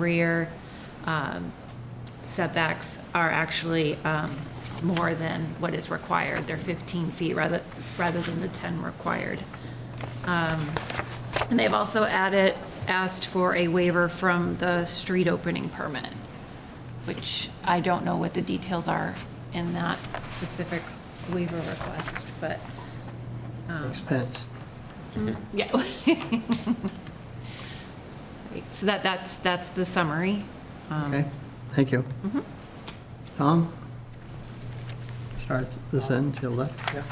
rear um, setbacks are actually um, more than what is required. They're 15 feet rather, rather than the 10 required. Um, And they've also added, asked for a waiver from the street opening permit, which I don't know what the details are in that specific waiver request, but, expense. yeah. Right, So that, that's, that's the summary. Okay, thank you. Tom? Start at this end to your left. Yeah.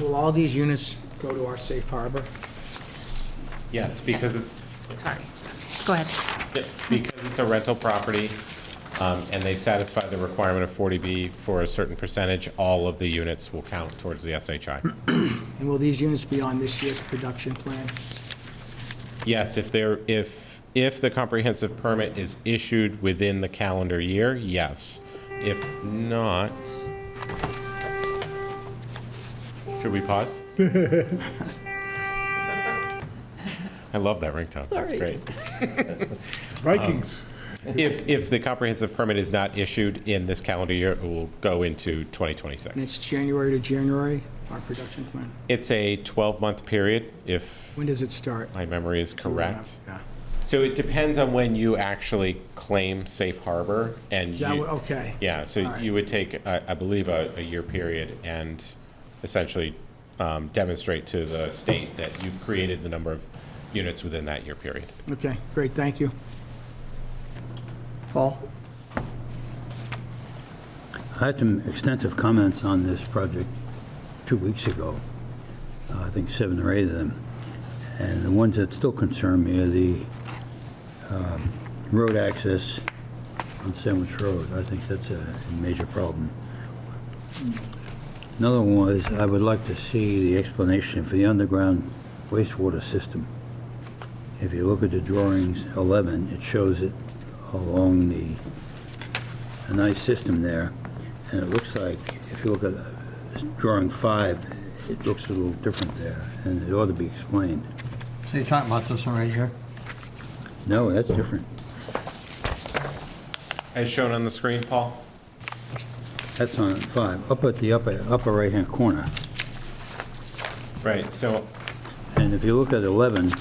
Will all these units go to our safe harbor? Yes, because it's, Sorry. Go ahead. it's because it's a rental property, um, and they've satisfied the requirement of 40B for a certain percentage, all of the units will count towards the SHI. And will these units be on this year's production plan? Yes, if there, if, if the comprehensive permit is issued within the calendar year, yes. If not, should we pause? I love that ringtone. That's great. Um, Vikings. If, if the comprehensive permit is not issued in this calendar year, it will go into 2026. And it's January to January, our production plan? It's a 12-month period, if When does it start? my memory is correct. Yeah. So it depends on when you actually claim safe harbor and Is that you. what- okay. Yeah, All so right. you would take, I I believe, a, a year period and essentially um, demonstrate to the state that you've created the number of units within that year period. Okay, great, thank you. Paul? I had some extensive comments on this project two weeks ago, Uh, I think seven or eight of them. And the ones that still concern me are the um, road access on Sandwich Road. I think that's a major problem. Another one was, I would like to see the explanation for the underground wastewater system. If you look at the drawings 11, it shows it along the a nice system there, and it looks like, if you look at drawing five, it looks a little different there, and it ought to be explained. So you're talking about this one right here? No, that's different. As shown on the screen, Paul? That's on five, up at the upper, upper right-hand corner. Right, so And if you look at 11,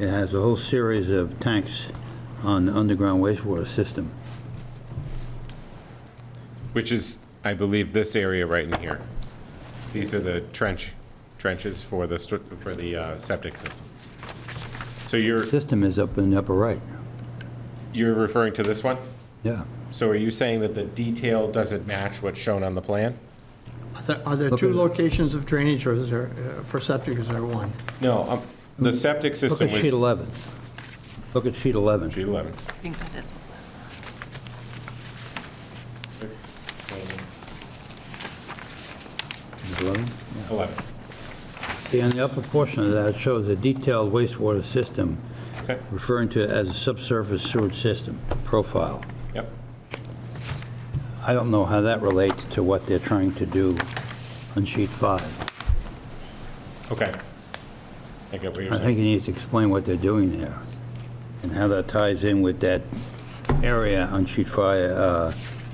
it has a whole series of tanks on the underground wastewater system. Which is, I believe, this area right in here. These are the trench, trenches for the, stru- for the uh, septic system. So you're, System is up in the upper right, you're referring to this one? yeah. So are you saying that the detail doesn't match what's shown on the plan? Are there- Are there two locations of drainage, or is there, uh, for septic, is there one? No, um, the septic Look system at was. sheet 11. Look at sheet 11. Sheet 11. I think that is. Sheet 11? 11. See, on the upper portion of that, it shows a detailed wastewater system, Okay, referring to it as a subsurface sewage system profile. yep. I don't know how that relates to what they're trying to do on sheet five. Okay. I get what you're I think saying. you need to explain what they're doing there, and how that ties in with that area on sheet five, uh,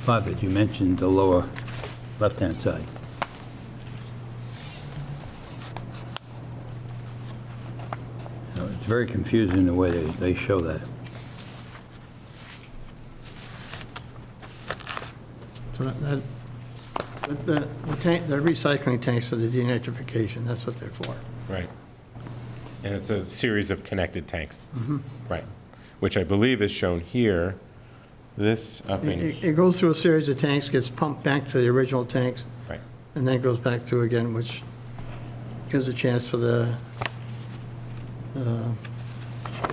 five that you mentioned, the lower left-hand side. You know, It's very confusing the way they, they show that. So that- that, but the, the tank, they're recycling tanks for the denitrification, that's what they're for. Right. And it's a series of connected tanks. Right. Which I believe is shown here. This up in. It it goes through a series of tanks, gets pumped back to the original tanks, Right. and then goes back through again, which gives a chance for the uh,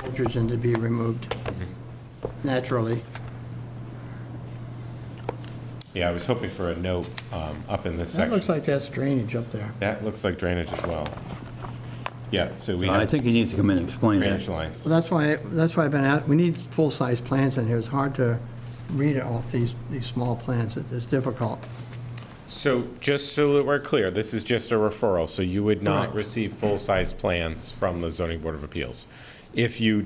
hydrogen to be removed naturally. Yeah, I was hoping for a note um, up in this That looks section. like that's drainage up there. That looks like drainage as well. Yeah, so we I have think you need to come in and explain it. drainage lines. Well, that's why, that's why I've been at, we need full-size plans in here. It's hard to read it off these, these small plans. It- It's difficult. So just so that we're clear, this is just a referral, so you would not Correct. receive full-size plans from the zoning board of appeals. If you